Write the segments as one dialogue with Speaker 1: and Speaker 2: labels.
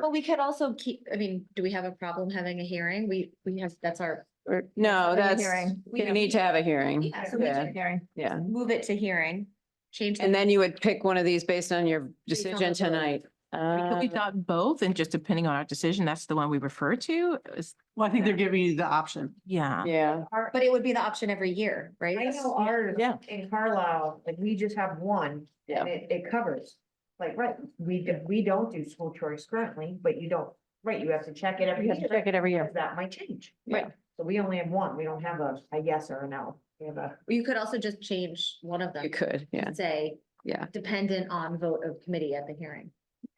Speaker 1: But we could also keep, I mean, do we have a problem having a hearing? We, we have, that's our.
Speaker 2: Or- No,
Speaker 3: Having a
Speaker 2: Oh, that's,
Speaker 3: hearing.
Speaker 2: we need to have a hearing.
Speaker 1: Yeah,
Speaker 3: So we
Speaker 2: Yeah.
Speaker 3: did hearing.
Speaker 2: Yeah.
Speaker 1: Move it to hearing, change. the-
Speaker 2: And then you would pick one of these based on your decision
Speaker 1: vote.
Speaker 2: tonight.
Speaker 4: Could we
Speaker 2: Uh,
Speaker 4: not both and just depending on our decision, that's the one we refer to? Is-
Speaker 5: Well, I think they're giving you the option.
Speaker 4: Yeah.
Speaker 2: Yeah,
Speaker 3: Our-
Speaker 1: But it would be the option every year, right?
Speaker 3: I know ours
Speaker 2: Yeah.
Speaker 3: in Carlisle, like we just have one
Speaker 2: Yeah.
Speaker 3: and it, it covers. Like, right, we, do- we don't do school choice currently, but you don't, right, you have to check it every
Speaker 2: You have to
Speaker 3: year.
Speaker 2: check it every year.
Speaker 3: because That might change.
Speaker 2: Yeah.
Speaker 3: Right. So we only have one. We don't have a, a yes or a no. We have a,
Speaker 1: You could also just change one of them.
Speaker 2: you could, yeah,
Speaker 1: and Say,
Speaker 2: yeah,
Speaker 1: dependent on vote of committee at the hearing.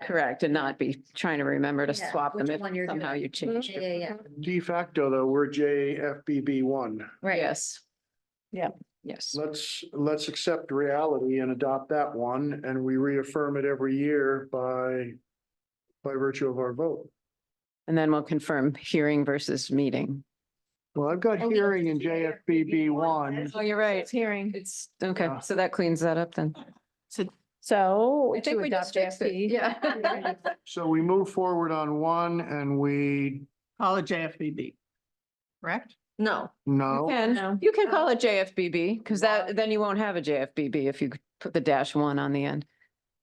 Speaker 2: correct. And not be trying to remember to
Speaker 1: Yeah,
Speaker 2: swap them
Speaker 1: which
Speaker 2: if
Speaker 1: one you're
Speaker 2: somehow
Speaker 1: doing.
Speaker 2: you change.
Speaker 1: Yeah,
Speaker 2: your-
Speaker 1: yeah, yeah,
Speaker 6: De facto, though, we're JFBB one.
Speaker 1: right.
Speaker 2: Yes. Yeah, yes.
Speaker 6: Let's, let's accept reality and adopt that one, and we reaffirm it every year by, by virtue of our vote.
Speaker 2: And then we'll confirm hearing versus meeting.
Speaker 6: Well, I've got
Speaker 1: Okay.
Speaker 6: hearing in JFBB one.
Speaker 3: That's
Speaker 2: Oh, you're right.
Speaker 5: Hearing.
Speaker 2: It's, okay,
Speaker 6: Yeah.
Speaker 2: so that cleans that up then.
Speaker 4: So
Speaker 5: So.
Speaker 2: I think
Speaker 5: to
Speaker 2: we just
Speaker 5: adopt
Speaker 2: fixed it.
Speaker 5: AFP.
Speaker 2: Yeah.
Speaker 6: So we move forward on one and we,
Speaker 5: Call it JFBB. Correct?
Speaker 1: No, Oh.
Speaker 2: You
Speaker 6: no,
Speaker 2: can,
Speaker 5: No.
Speaker 2: you can call it JFBB because that, then you won't have a JFBB if you put the dash one on the end.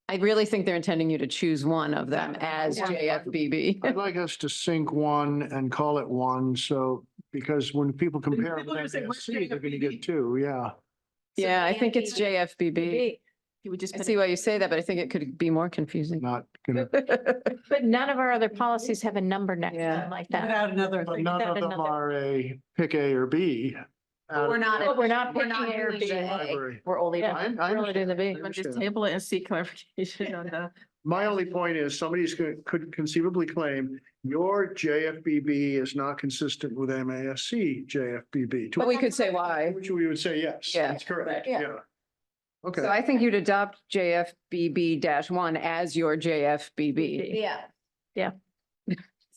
Speaker 2: I really think they're intending you to choose one of them as JFBB.
Speaker 6: I'd like us to sync one and call it one, so, because when people compare
Speaker 5: people are
Speaker 6: with
Speaker 5: saying, "Where's
Speaker 6: MASC, they're gonna
Speaker 5: JFBB?"
Speaker 6: get two, yeah.
Speaker 2: Yeah, I think it's JFBB.
Speaker 4: you would just.
Speaker 2: I
Speaker 4: put
Speaker 2: see
Speaker 4: it-
Speaker 2: why you say that, but I think it could be more confusing.
Speaker 6: Not gonna,
Speaker 7: But none of our other policies have a number next to
Speaker 2: Yeah.
Speaker 7: them like that.
Speaker 5: Without another.
Speaker 6: but
Speaker 5: thing.
Speaker 6: none
Speaker 7: that
Speaker 6: of them
Speaker 7: another-
Speaker 6: are a pick A or B. out
Speaker 1: we're
Speaker 6: of
Speaker 1: not.
Speaker 7: But we're not
Speaker 1: we're
Speaker 7: picking
Speaker 1: not
Speaker 7: A or
Speaker 1: doing
Speaker 7: B.
Speaker 1: the A.
Speaker 6: library.
Speaker 1: We're only.
Speaker 7: Yeah.
Speaker 1: doing-
Speaker 6: I- I
Speaker 7: Really didn't be.
Speaker 6: understand, I
Speaker 4: Let's Just
Speaker 6: understand.
Speaker 4: table it and see clarification on the.
Speaker 6: My only point is somebody's could, could conceivably claim your JFBB is not consistent with MASC JFBB. to
Speaker 2: But we could say why.
Speaker 6: Which we would say, yes,
Speaker 2: Yeah.
Speaker 6: that's correct,
Speaker 2: Yeah.
Speaker 6: yeah.
Speaker 2: So
Speaker 6: Okay,
Speaker 2: I think you'd adopt JFBB dash one as your JFBB.
Speaker 1: Yeah,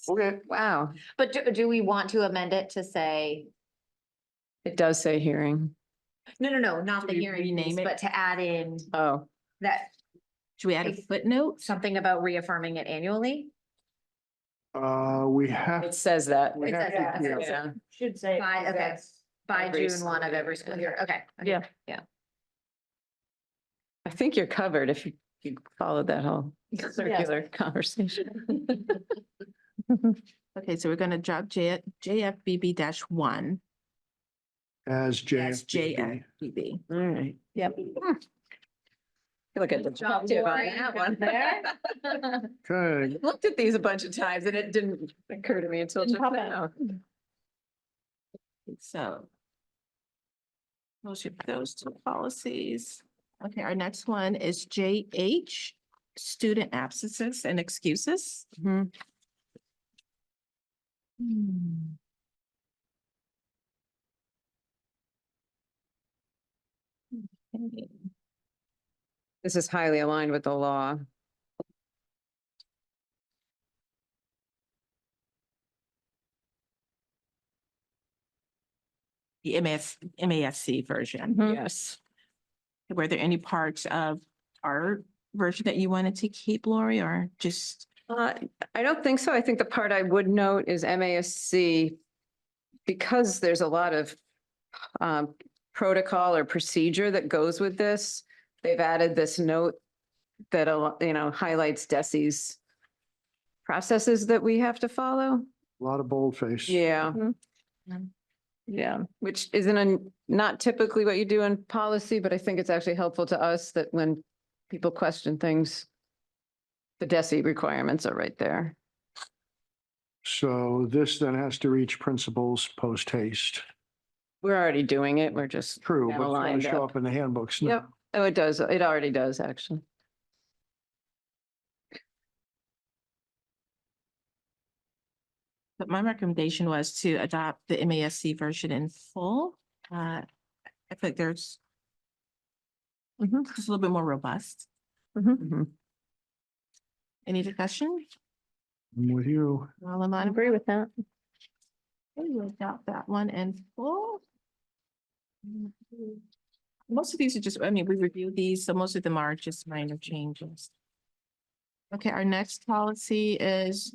Speaker 6: okay,
Speaker 2: Wow,
Speaker 1: but do, do we want to amend it to say,
Speaker 2: it does say hearing.
Speaker 1: no, no, no, not
Speaker 4: Do
Speaker 1: the
Speaker 4: we
Speaker 1: hearing
Speaker 4: rename
Speaker 1: piece,
Speaker 4: it?
Speaker 1: but to add in
Speaker 2: Oh,
Speaker 1: that,
Speaker 4: Should we add a
Speaker 1: Ex-
Speaker 4: footnote?
Speaker 1: something about reaffirming it annually?
Speaker 6: uh, we have,
Speaker 2: it says that.
Speaker 6: we
Speaker 1: It
Speaker 6: have,
Speaker 3: says
Speaker 6: to-
Speaker 1: that,
Speaker 6: yeah.
Speaker 1: okay.
Speaker 2: Yeah.
Speaker 3: Should say.
Speaker 1: By- okay.
Speaker 3: that's-
Speaker 1: By
Speaker 2: Every
Speaker 1: June one of
Speaker 2: school
Speaker 1: every
Speaker 2: year.
Speaker 1: school year, okay. okay.
Speaker 7: Yeah.
Speaker 2: I think you're covered if you, you followed that whole circular conversation.
Speaker 4: Okay, so we're going to drop J, JFBB dash one.
Speaker 6: as
Speaker 4: That's
Speaker 6: JFBB.
Speaker 4: JFBB.
Speaker 2: All right. Hmm.
Speaker 5: Yep.
Speaker 2: Look at the
Speaker 1: Good job,
Speaker 2: job too on
Speaker 1: Lori.
Speaker 2: that one.
Speaker 6: Okay,
Speaker 2: Looked at these a bunch of times and it didn't occur to me until just
Speaker 7: Didn't pop
Speaker 2: now.
Speaker 4: So. We'll ship those two policies. Okay, our next one is JH, student absences and excuses.
Speaker 2: Mhm.
Speaker 4: Okay.
Speaker 2: This is highly aligned with the law.
Speaker 4: The MS, MASC version.
Speaker 2: Yes.
Speaker 4: Were there any parts of our version that you wanted to keep, Lori, or just?
Speaker 2: Uh, I don't think so. I think the part I would note is MASC, because there's a lot of um, protocol or procedure that goes with this, they've added this note that, a lo- you know, highlights DESI's processes that we have to follow.
Speaker 6: a lot of boldface.
Speaker 2: Yeah.
Speaker 7: Mhm.
Speaker 2: Yeah, which isn't, an- not typically what you do in policy, but I think it's actually helpful to us that when people question things, the DESI requirements are right there.
Speaker 6: So this then has to reach principles post haste.
Speaker 2: We're already doing it. We're just.
Speaker 6: True,
Speaker 2: kinda
Speaker 6: but it's gonna
Speaker 2: lined
Speaker 6: show
Speaker 2: up.
Speaker 6: up in the handbooks now.
Speaker 2: Yep. Oh, it does. It already does, actually.
Speaker 4: But my recommendation was to adopt the MASC version in full. Uh, I think there's it's a little bit more robust.
Speaker 2: Mhm.
Speaker 4: Any discussion?
Speaker 6: I'm with you.
Speaker 4: All in
Speaker 7: I
Speaker 4: line,
Speaker 7: agree with that.
Speaker 4: we adopt that one in full. Mm-hmm. Most of these are just, I mean, we reviewed these, so most of them are just minor changes. Okay, our next policy is